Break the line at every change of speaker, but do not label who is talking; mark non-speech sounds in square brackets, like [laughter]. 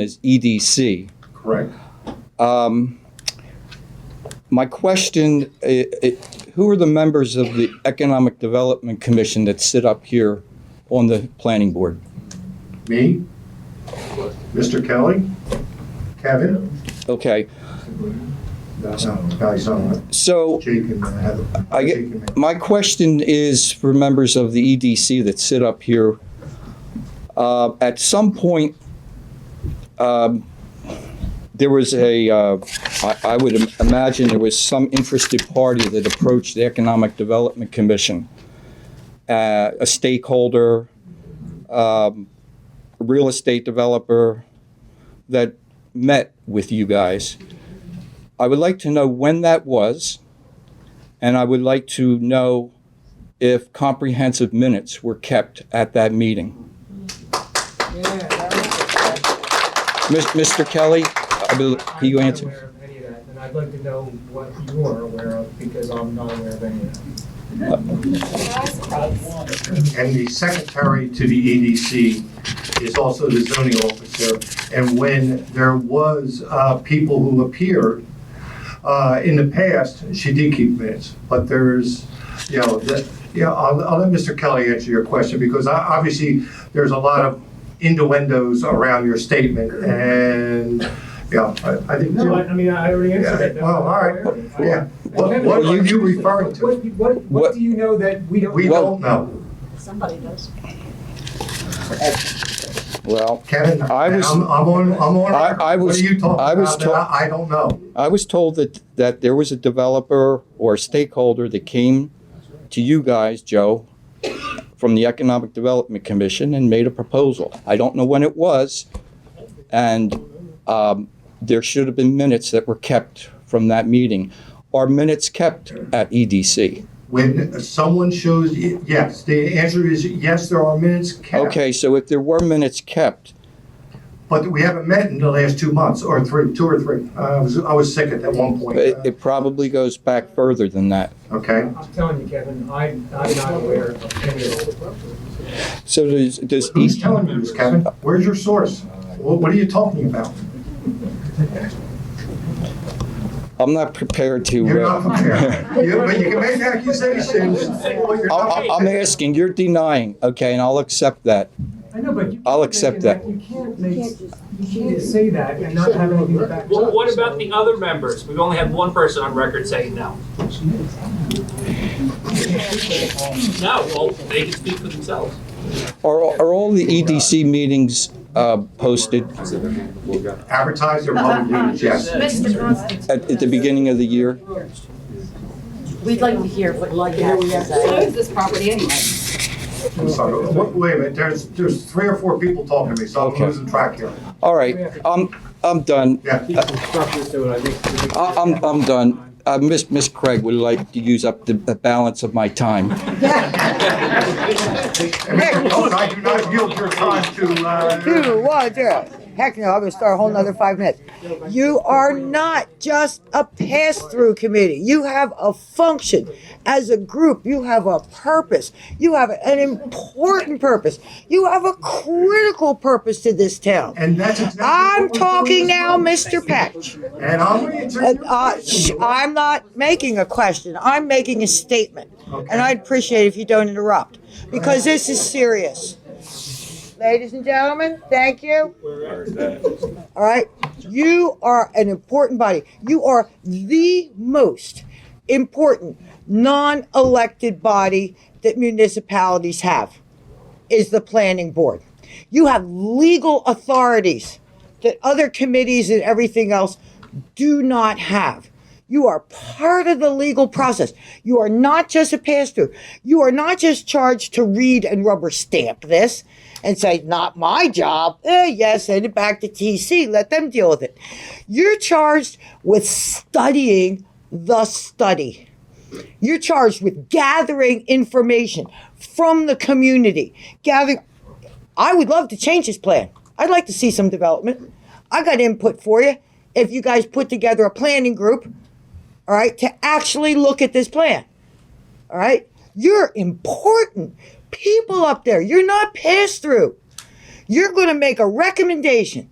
is EDC.
Correct.
Um, My question, i- i- who are the members of the Economic Development Commission that sit up here on the planning board?
Me? Mr. Kelly? Kevin?
Okay,
No, no, Kelly's on.
so
Jake and uh, Heather.
I get-
Jake and me.
my question is for members of the EDC that sit up here. Uh, At some point, um, there was a, uh, I I would im- imagine there was some interested party that approached the Economic Development Commission, uh, a stakeholder, um, a real estate developer that met with you guys. I would like to know when that was. And I would like to know if comprehensive minutes were kept at that meeting. Mis- Mr. Kelly, I bel- can you
I'm
answer?
not aware of any of that, and I'd like to know what you are aware of, because I'm not aware of any of that.
And the secretary to the EDC is also the zoning officer. And when there was uh, people who appeared uh, in the past, she did keep minutes. But there's, you know, the- yeah, I'll I'll let Mr. Kelly answer your question because I- obviously there's a lot of innuendos around your statement and, yeah, I I think.
No, I, I mean, I already answered that.
Yeah, Well, all right, yeah. What what are you referring to?
What, what, what do you know that we don't?
We
know?
don't know.
Somebody does.
Well,
Kevin,
I was-
I'm, I'm on, I'm on.
I-
record.
I
What
was-
are you talking
I was
about that I I don't know.
I was told that, that there was a developer or stakeholder that came to you guys, Joe, from the Economic Development Commission and made a proposal. I don't know when it was. And um, there should have been minutes that were kept from that meeting. Are minutes kept at E EDC?
When someone shows, y- yes, the answer is yes, there are minutes kept.
Okay, so if there were minutes kept,
But we haven't met in the last two months or three, two or three. Uh, I was, I was sick at that one point. uh,
it, it probably goes back further than that.
Okay,
I'm telling you, Kevin, I, I'm not aware of any of it.
So does, does
who's
each,
telling you this, Kevin? Where's your source? Wha- What are you talking about?
I'm not prepared
You're
to,
not
uh,
prepared. You- But you can make accusations. Well, you're
I'm,
not
[laughs] I'm- I'm asking, you're denying, okay, and I'll accept that.
I know, but you.
I'll
keep
accept
making You can't make, you can't say that and not have anything to back it
Well,
up,
what
so-
about the other members? We've only had one person on record saying no. No, well, they can speak for themselves.
Are, are all the EDC meetings, uh, posted
Advertise your public meetings, yes.
Mr. Constance,
at, at the beginning of the year?
we'd like to hear what you have to
So
say.
is this property anyway?
I'm sorry. Wait wait a minute, there's, there's three or four people talking to me, so I'm
Okay.
losing track here.
All right, I'm, I'm done.
Yeah.
I, Uh, I'm, I'm done. Uh, Miss, Miss Craig would like to use up the, the balance of my time.
And Mr. Cohen, I do not yield your time to, uh,
two, one, zero. Heck no, I'm gonna start a whole nother five minutes. You are not just a pass-through committee. You have a function. As a group, you have a purpose. You have an important purpose. You have a critical purpose to this town.
and that's exactly.
I'm
what we're doing
talking
this
now,
morning.
Mr. Patch.
And I'm going to
And, uh, sh- I'm not making a question. I'm making a statement. And I'd appreciate it if you don't interrupt, because this is serious. Ladies and gentlemen, thank you. All right, you are an important body. You are the most important non-elected body that municipalities have, is the planning board. You have legal authorities that other committees and everything else do not have. You are part of the legal process. You are not just a pass through. You are not just charged to read and rubber stamp this and say, not my job. Eh, yes, send it back to TC. Let them deal with it. You're charged with studying the study. You're charged with gathering information from the community, gathering I would love to change this plan. I'd like to see some development. I got input for you. If you guys put together a planning group, all right, to actually look at this plan, all right? You're important people up there. You're not pass through. You're going to make a recommendation